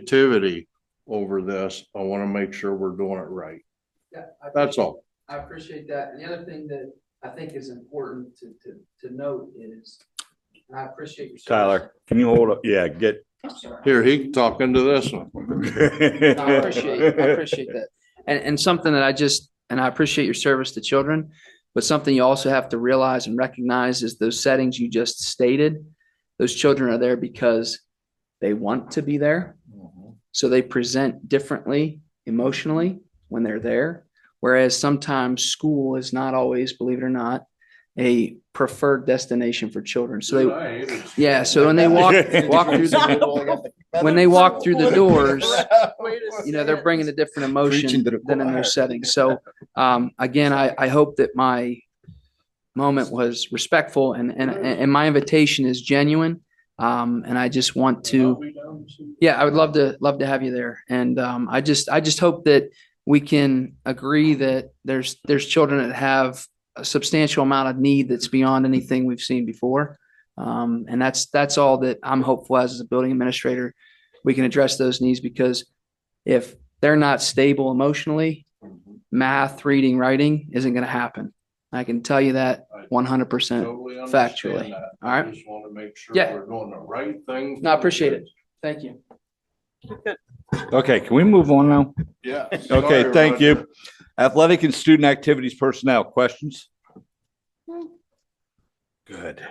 negativity over this, I wanna make sure we're doing it right. Yeah, I That's all. I appreciate that. And the other thing that I think is important to, to, to note is, and I appreciate your. service. Tyler, can you hold up? Yeah, get. I'm sorry. Here, he can talk into this one. No, I appreciate, I appreciate that. And, and something that I just, and I appreciate your service to children, but something you also have to realize and recognize is those settings you just stated. Those children are there because they want to be there. So they present differently emotionally when they're there. Whereas sometimes school is not always, believe it or not, a preferred destination for children. So they, yeah, so when they walk, walk through the, when they walk through the doors, you know, they're bringing a different emotion Preaching to the than in choir. their setting. So, um, again, I, I hope that my moment was respectful and, and, and my invitation is genuine. Um, and I just want to, uh, yeah, I would love to, love to have you there. And, um, I just, I just hope that we can agree that there's, there's children that have a substantial amount of need that's beyond anything we've seen before. Um, and that's, that's all that I'm hopeful as, as a building administrator, we can address those needs because if they're not stable emotionally, math, reading, writing isn't going to happen. I can tell you that one hundred percent. Factually. All right. Just wanna make sure Yeah. we're doing the right thing. No, I appreciate it. Thank you. Okay, can we move on now? Yeah. Okay, thank you. Athletic and student activities personnel, questions? Good.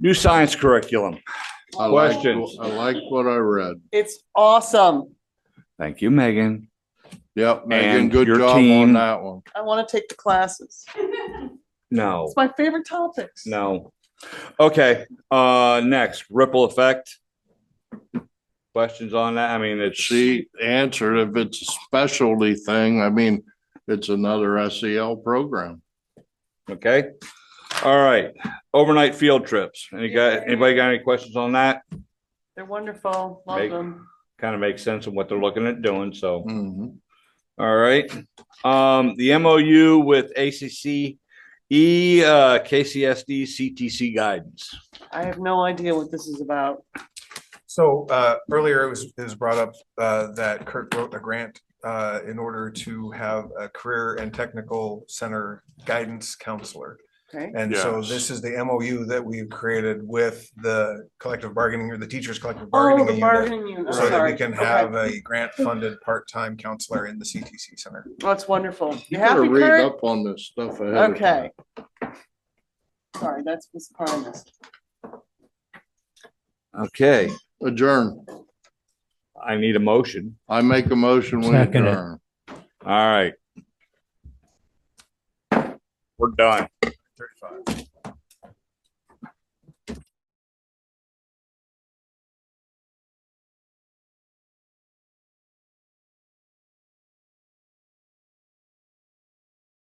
New science curriculum. I like, Questions? I like what I read. It's awesome. Thank you, Megan. Yep, Megan, And good your job on team. that one. I want to take the classes. No, It's my favorite topics. no. Okay, uh, next, ripple effect. Questions on that? I mean, it's. She answered if it's a specialty thing, I mean, it's another SEL program. Okay, all right, overnight field trips. Any guy, anybody got any questions on that? They're wonderful. Love Make- them. Kind of makes sense of what they're looking at doing, so, Mhm. all right. Um, the MOU with ACC E, uh, KCSD, CTC guidance. I have no idea what this is about. So uh, earlier it was, it was brought up uh, that Kurt wrote a grant uh, in order to have a career and technical center guidance counselor. Okay. And so Yes. this is the MOU that we've created with the collective bargaining or the teachers collective Oh, the bargaining unit. bargaining unit. I'm So that sorry. we can Okay. have a grant funded part-time counselor in the CTC center. That's wonderful. You You gotta happy, read Kurt? up on this stuff ahead of time. Okay. Sorry, that's this part I missed. Okay, Adjourn. I need a motion. I make a motion, we Second it. adjourn. All right. We're done. Thirty-five.